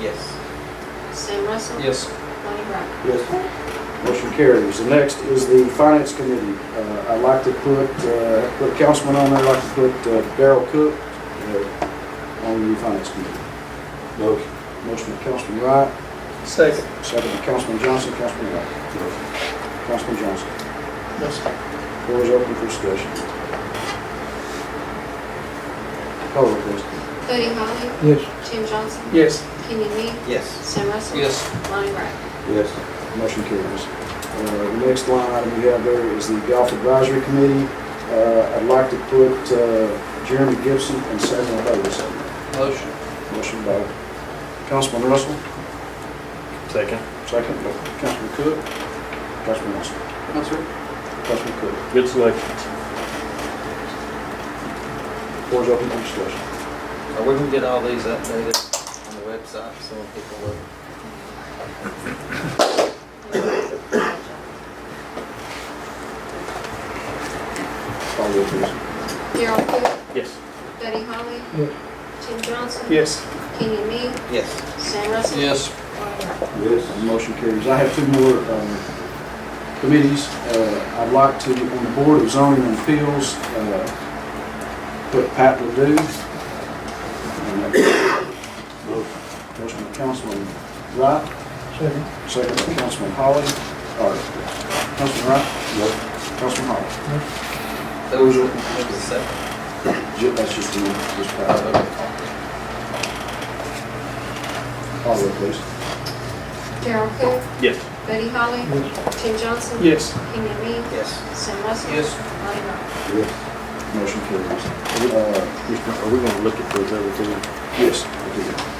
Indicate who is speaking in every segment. Speaker 1: Yes.
Speaker 2: Sam Russell.
Speaker 3: Yes.
Speaker 2: Lonnie Wright.
Speaker 4: Yes. Motion carries. The next is the Finance Committee. Uh, I'd like to put, uh, put a councilman on there, I'd like to put uh, Darrell Cook uh, on the Finance Committee. Motion. Motion by Councilman Wright,
Speaker 3: Second.
Speaker 4: second by Councilman Johnson, Councilman Wright. Councilman Johnson,
Speaker 3: Yes.
Speaker 4: floor is open for discussion. Call the roll, please.
Speaker 2: Buddy Holly.
Speaker 3: Yes.
Speaker 2: Tim Johnson.
Speaker 3: Yes.
Speaker 2: Kenny Me.
Speaker 1: Yes.
Speaker 2: Sam Russell.
Speaker 3: Yes.
Speaker 2: Lonnie Wright.
Speaker 4: Yes. Motion carries. Uh, The next line item we have there is the Golf Advisory Committee. Uh, I'd like to put uh, Jeremy Gibson and Samuel Davis on there.
Speaker 3: Motion.
Speaker 4: Motion by Councilman Russell,
Speaker 5: Second.
Speaker 4: second by Councilman Cook. Councilman Russell,
Speaker 3: No, sir.
Speaker 4: Councilman Cook.
Speaker 5: Good selection.
Speaker 4: Floor is open for discussion.
Speaker 1: Or we can get all these updated on the website so when people look.
Speaker 4: Call the roll, please.
Speaker 2: Darryl Cook.
Speaker 5: Yes.
Speaker 2: Buddy Holly.
Speaker 3: Yes.
Speaker 2: Tim Johnson.
Speaker 3: Yes.
Speaker 2: Kenny Me.
Speaker 1: Yes.
Speaker 2: Sam Russell.
Speaker 3: Yes.
Speaker 2: Lonnie Wright.
Speaker 4: Yes. Motion carries. I have two more um, committees. Uh, I'd like to, on the Board of Zoning and Appeals, uh, put Pat Ledoux. And that- Motion by Councilman Wright,
Speaker 3: Second.
Speaker 4: Second by Councilman Holly, or Councilman Wright? Yes. Councilman Holly?
Speaker 1: Those are the second.
Speaker 4: Ju- That's just you, just Pat. Call the roll, please.
Speaker 2: Darryl Cook.
Speaker 5: Yes.
Speaker 2: Buddy Holly. Tim Johnson.
Speaker 3: Yes.
Speaker 2: Kenny Me.
Speaker 1: Yes.
Speaker 2: Sam Russell.
Speaker 3: Yes.
Speaker 2: Lonnie Wright.
Speaker 4: Yes. Motion carries. Uh,
Speaker 5: Are we gonna look at those other two?
Speaker 4: Yes. we do.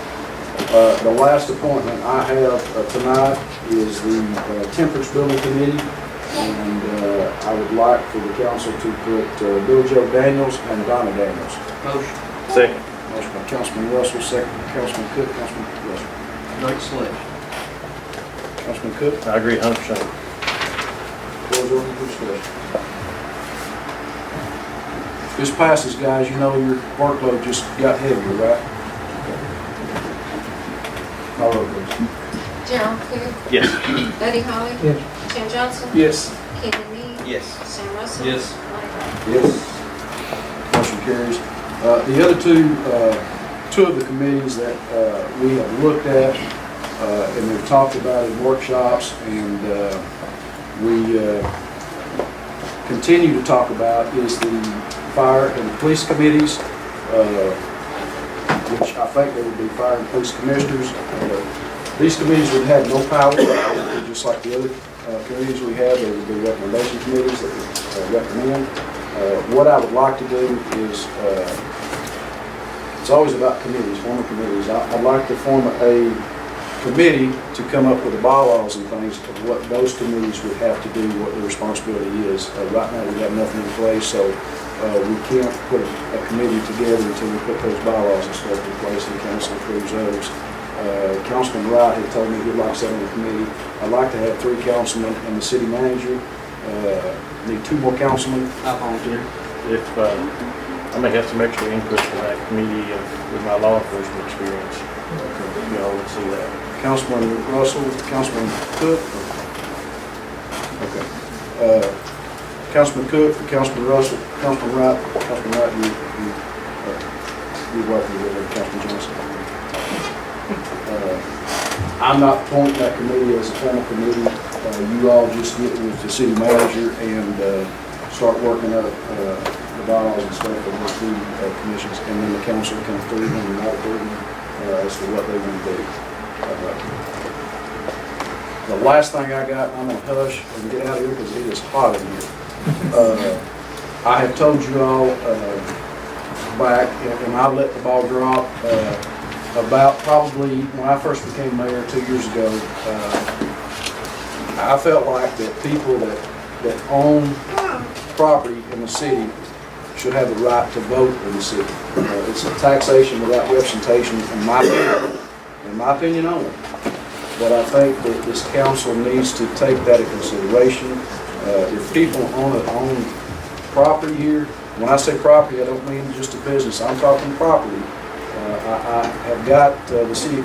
Speaker 4: Uh, The last appointment I have uh, tonight is the uh, Temperance Building Committee, and uh, I would like for the council to put uh, Bill Joe Daniels and Donna Daniels.
Speaker 3: Motion.
Speaker 5: Second.
Speaker 4: Motion by Councilman Russell, second by Councilman Cook, Councilman Russell.
Speaker 3: Great selection.
Speaker 4: Councilman Cook,
Speaker 5: I agree a hundred percent.
Speaker 4: floor is open for discussion. This passes, guys, you know your workload just got heavier, right? Call roll, please.
Speaker 2: Darryl Cook.
Speaker 5: Yes.
Speaker 2: Buddy Holly.
Speaker 3: Yes.
Speaker 2: Tim Johnson.
Speaker 3: Yes.
Speaker 2: Kenny Me.
Speaker 1: Yes.
Speaker 2: Sam Russell.
Speaker 3: Yes.
Speaker 2: Lonnie Wright.
Speaker 4: Yes. Motion carries. Uh, The other two, uh, two of the committees that uh, we have looked at uh, and we've talked about in workshops and uh, we uh, continue to talk about is the fire and police committees, uh, which I think they would be fire and police commissioners. Uh, These committees would have no power, They would be just like the other uh, committees we have, they would be recommendation committees that would uh, recommend. Uh, What I would like to do is, uh, it's always about committees, forming committees. I- I'd like to form a committee to come up with the bylaws and things of what those committees would have to do, what their responsibility is. Uh, Right now, we have nothing in place, so uh, we can't put a a committee together until we put those bylaws and stuff in place and council approves those. Uh, Councilman Wright had told me he'd like to sit on the committee. I'd like to have three councilmen and the city manager. Uh, Need two more councilmen.
Speaker 1: I volunteer.
Speaker 5: If, uh, I may have some extra input from that committee and with my law enforcement experience. Y'all would see that.
Speaker 4: Councilman Russell, Councilman Cook. Okay. Uh, Councilman Cook, Councilman Russell, Councilman Wright, Councilman Wright, you, you, uh, you're welcome to it, Councilman Johnson. Uh, I'm not appointing that committee as a formal committee. Uh, You all just get with the city manager and uh, start working up uh, the bylaws and stuff of the two uh, commissions, and then the council can approve them or not approve them uh, as to what they want to do. Uh, The last thing I got, I'm gonna hush and get out of here because it is hot in here. Uh, I have told you all uh, back, and I let the ball drop, uh, about probably when I first became mayor two years ago, uh, I felt like that people that, that own property in the city should have the right to vote in the city. Uh, It's a taxation without representation, in my opinion, in my opinion only. But I think that this council needs to take that into consideration. Uh, If people own it, own property here, when I say property, I don't mean just a business, I'm talking property. Uh, I I have got uh, the city of